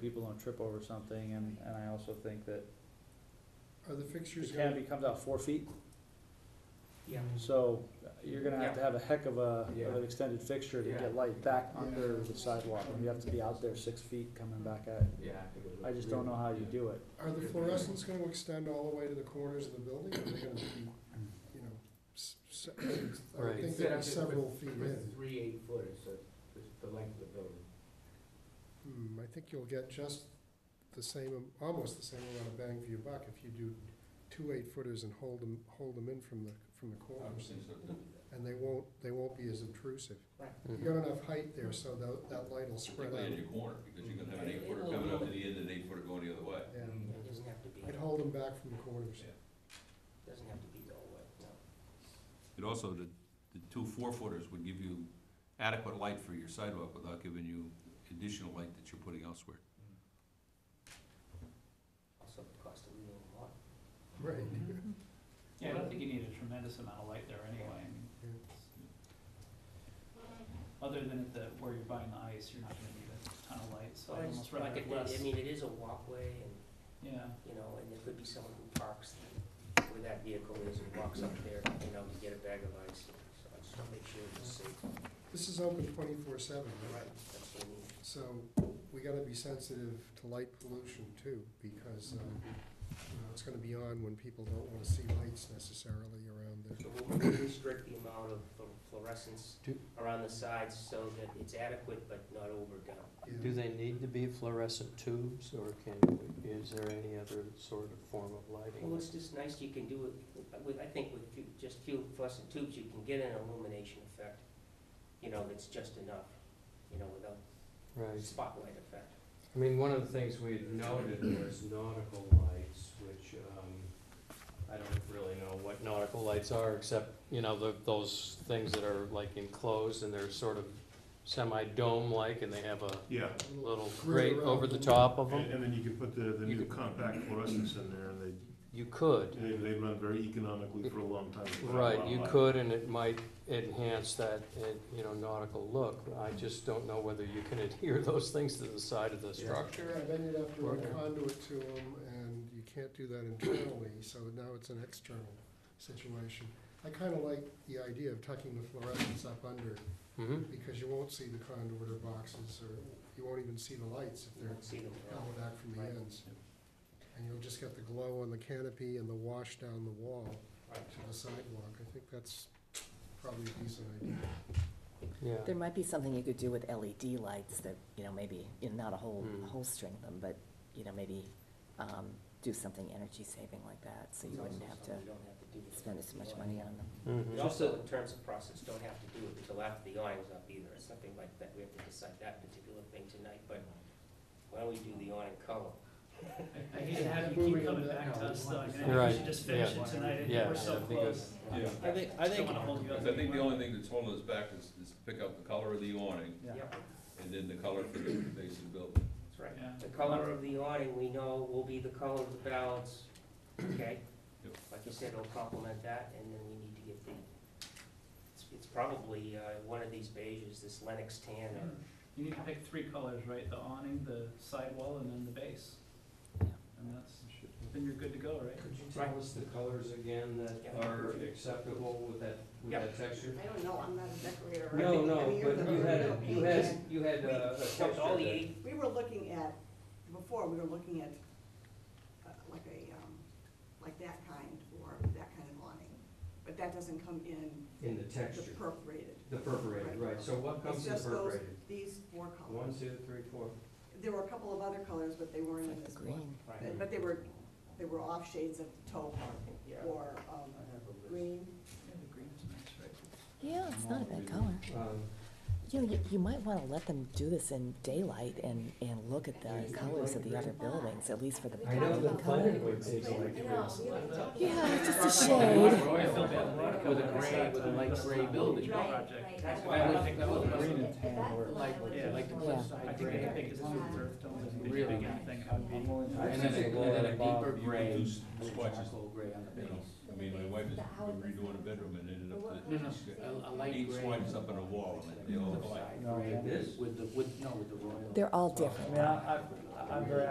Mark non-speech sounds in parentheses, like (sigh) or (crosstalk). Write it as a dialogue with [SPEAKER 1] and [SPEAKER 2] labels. [SPEAKER 1] people don't trip over something, and, and I also think that
[SPEAKER 2] Are the
[SPEAKER 1] the
[SPEAKER 2] fixtures gonna,
[SPEAKER 1] canopy comes out four feet,
[SPEAKER 3] Yeah.
[SPEAKER 1] so uh, you're gonna have to have a heck of a, of
[SPEAKER 3] Yeah.
[SPEAKER 1] an extended fixture to
[SPEAKER 3] Yeah.
[SPEAKER 1] get light back
[SPEAKER 2] Yeah.
[SPEAKER 1] under the sidewalk, and you have to be out there six feet coming back at it.
[SPEAKER 3] Yeah.
[SPEAKER 1] I just don't know how you do it.
[SPEAKER 2] are the fluorescents gonna extend all the way to the corners of the building, or are they gonna be, you know, s- s- I would
[SPEAKER 1] Right.
[SPEAKER 2] think they're several feet in.
[SPEAKER 3] With three eight footers, so it's the length of the building.
[SPEAKER 2] Hmm, I think you'll get just the same, am- almost the same amount of bang for your buck if you do two eight footers and hold them, hold them in from the, from the corners. And they won't, they won't be as intrusive.
[SPEAKER 3] Right.
[SPEAKER 2] You got enough height there, so that, that light will spread
[SPEAKER 4] Particularly in
[SPEAKER 2] out.
[SPEAKER 4] your corner, because you're gonna have an eight footer coming up to the end and an eight footer going the other way.
[SPEAKER 2] Yeah,
[SPEAKER 3] It doesn't have to be,
[SPEAKER 2] it'd hold them back from the corners.
[SPEAKER 3] doesn't have to be the whole way, no.
[SPEAKER 4] And also, the, the two four footers would give you adequate light for your sidewalk without giving you additional light that you're putting elsewhere.
[SPEAKER 3] Also, the cost of leaving a lot.
[SPEAKER 2] Right. (laughs)
[SPEAKER 5] Yeah, I don't think you need a tremendous amount of light there anyway. I mean,
[SPEAKER 2] Yeah.
[SPEAKER 5] Other than at the, where you're buying the ice, you're not gonna need a ton of light, so I almost rather
[SPEAKER 3] Like it-
[SPEAKER 5] get less,
[SPEAKER 3] I mean, it is a walkway and,
[SPEAKER 5] yeah.
[SPEAKER 3] you know, and there could be someone who parks where that vehicle is and walks up there, you know, to get a bag of ice. So I just wanna make sure it's safe.
[SPEAKER 2] This is open twenty-four seven, right?
[SPEAKER 3] That's what I mean.
[SPEAKER 2] So we gotta be sensitive to light pollution too, because, um, you know, it's gonna be on when people don't wanna see lights necessarily around there.
[SPEAKER 3] So we'll really restrict the amount of flu- fluorescence
[SPEAKER 6] Do-
[SPEAKER 3] around the sides so that it's adequate but not overdone.
[SPEAKER 6] Do
[SPEAKER 2] Yeah.
[SPEAKER 6] they need to be fluorescent tubes, or can, we- is there any other sort of form of
[SPEAKER 3] Well,
[SPEAKER 6] lighting?
[SPEAKER 3] it's just nice, you can do it, with, I think with few- just few fluorescent tubes, you can get an illumination effect, you know, that's just enough, you know, without
[SPEAKER 6] Right,
[SPEAKER 3] spotlight effect.
[SPEAKER 7] I mean, one of the things we had noted was nautical lights, which, um, I don't really know what nautical lights are, except, you know, the, those things that are like enclosed and they're sort of semi-dome-like and they have a
[SPEAKER 8] Yeah,
[SPEAKER 7] little
[SPEAKER 2] Right
[SPEAKER 7] grate
[SPEAKER 2] around
[SPEAKER 7] over the
[SPEAKER 2] them.
[SPEAKER 7] top of
[SPEAKER 8] and,
[SPEAKER 7] them.
[SPEAKER 8] and then you can put the, the
[SPEAKER 7] You
[SPEAKER 8] new
[SPEAKER 7] could-
[SPEAKER 8] compact fluorescents in there, and
[SPEAKER 7] You could,
[SPEAKER 8] they, they, they run very economically for a long time. without a lot
[SPEAKER 7] right,
[SPEAKER 8] of
[SPEAKER 7] you
[SPEAKER 8] light.
[SPEAKER 7] could, and it might enhance that, eh, you know, nautical look. I just don't know whether you can (laughs) adhere those things to the side of the structure.
[SPEAKER 2] Yeah, then you'd have to run
[SPEAKER 7] Right.
[SPEAKER 2] conduit to them, and you can't do that internally, so now it's an external situation. I kinda like the idea of tucking the fluorescents up under,
[SPEAKER 7] hmm
[SPEAKER 2] because you won't see the conduit or boxes, or you won't even see the lights if
[SPEAKER 3] You
[SPEAKER 2] they're
[SPEAKER 3] won't see them at all.
[SPEAKER 2] held back from the
[SPEAKER 3] Right.
[SPEAKER 2] ends. And you'll just get the glow on the canopy and the wash down the wall
[SPEAKER 3] Right.
[SPEAKER 2] to the sidewalk. I think that's probably a decent idea.
[SPEAKER 7] yeah.
[SPEAKER 9] There might be something you could do with LED lights that, you know, maybe, you know, not a whole,
[SPEAKER 7] Hmm.
[SPEAKER 9] a whole string of them, but, you know, maybe, um, do something energy saving like that, so you wouldn't have to
[SPEAKER 3] You don't have to do it.
[SPEAKER 9] spend as much money on them.
[SPEAKER 7] Mhm.
[SPEAKER 3] We also, in terms of process, don't have to do it until after the awning's up either, it's nothing like that, we have to decide that particular thing tonight, but why don't we do the awning color?
[SPEAKER 5] I, I hate to have you keep coming back to us though, I mean, I
[SPEAKER 7] Right,
[SPEAKER 5] think we should just finish
[SPEAKER 7] yeah.
[SPEAKER 5] it tonight, I think
[SPEAKER 7] Yeah,
[SPEAKER 5] we're so
[SPEAKER 7] I think
[SPEAKER 5] close.
[SPEAKER 4] Yeah.
[SPEAKER 1] I think, I
[SPEAKER 5] Don't
[SPEAKER 1] think,
[SPEAKER 5] wanna hold you up
[SPEAKER 4] Because I think the
[SPEAKER 5] anymore.
[SPEAKER 4] only thing that's holding us back is, is pick up the color of the awning,
[SPEAKER 1] Yeah.
[SPEAKER 3] Yep,
[SPEAKER 4] and then the color for the base of the building.
[SPEAKER 3] that's right.
[SPEAKER 5] Yeah.
[SPEAKER 3] The color of the awning, we know, will be the color of the balance, okay?
[SPEAKER 4] Yep.
[SPEAKER 3] Like you said, it'll complement that, and then we need to get the, it's, it's probably, uh, one of these beiges, this Lennox tan or
[SPEAKER 5] You need to pick three colors, right, the awning, the sidewall, and then the base. And that's, then you're good to go, right?
[SPEAKER 7] Could you tell us the colors again that
[SPEAKER 3] Yeah.
[SPEAKER 7] are acceptable with that, with
[SPEAKER 3] Yeah.
[SPEAKER 7] that texture?
[SPEAKER 10] I don't know, I'm not a decorator. or
[SPEAKER 7] No,
[SPEAKER 10] anything. I
[SPEAKER 7] no,
[SPEAKER 10] mean, you're
[SPEAKER 7] but
[SPEAKER 10] the
[SPEAKER 7] you had,
[SPEAKER 10] real
[SPEAKER 7] you
[SPEAKER 10] painter.
[SPEAKER 7] had, you had uh, a
[SPEAKER 3] Of course, all the
[SPEAKER 7] texture
[SPEAKER 3] eight,
[SPEAKER 10] We were looking at, before, we were looking at uh, like a, um, like that kind or that kind of awning. But that doesn't come in
[SPEAKER 7] that, in the
[SPEAKER 10] the
[SPEAKER 7] texture,
[SPEAKER 10] perforated.
[SPEAKER 7] the perforated, right, so what comes
[SPEAKER 10] It's
[SPEAKER 7] in
[SPEAKER 10] just those,
[SPEAKER 7] perforated?
[SPEAKER 10] these four
[SPEAKER 7] One,
[SPEAKER 10] colors.
[SPEAKER 7] two, three, four.
[SPEAKER 10] There were a couple of other colors, but they weren't in
[SPEAKER 9] Like the
[SPEAKER 10] this one.
[SPEAKER 9] green,
[SPEAKER 3] right,
[SPEAKER 10] But- But they were, they were off shades of taupe
[SPEAKER 3] yeah.
[SPEAKER 10] or um,
[SPEAKER 3] I have a list.
[SPEAKER 10] green.
[SPEAKER 5] Yeah, the green's nice, right?
[SPEAKER 9] yeah, it's not a bad color.
[SPEAKER 7] Um,
[SPEAKER 9] You know, you, you might wanna let them do this in daylight and, and look at the colors of the other buildings, at least for the
[SPEAKER 7] I know the
[SPEAKER 9] practical color.
[SPEAKER 7] planning would take like this.
[SPEAKER 9] Yeah, it's just a shade.
[SPEAKER 3] Roy, I feel bad.
[SPEAKER 5] With a gray, with a light gray building. Project.
[SPEAKER 3] That's why I would think that was.
[SPEAKER 1] green and tan work.
[SPEAKER 5] Yeah, like
[SPEAKER 9] the Yeah.
[SPEAKER 5] I think, I think it's just earth tones, if you
[SPEAKER 7] Really
[SPEAKER 5] pick anything, it would be.
[SPEAKER 1] I'm willing to-
[SPEAKER 7] And then a- and then a deeper
[SPEAKER 4] You
[SPEAKER 7] gray.
[SPEAKER 4] can do s- swatches,
[SPEAKER 7] gray on
[SPEAKER 4] you know, I mean, my wife is redoing a bedroom and ended up
[SPEAKER 7] No, no,
[SPEAKER 4] with
[SPEAKER 7] a, a light
[SPEAKER 4] eight
[SPEAKER 7] gray.
[SPEAKER 4] swatches up on the wall, and they all like.
[SPEAKER 1] No,
[SPEAKER 7] Like
[SPEAKER 1] man.
[SPEAKER 7] this?
[SPEAKER 3] With the, with, no, with the royal.
[SPEAKER 9] They're all
[SPEAKER 1] I
[SPEAKER 9] different.
[SPEAKER 1] mean, I, I,
[SPEAKER 5] I'm very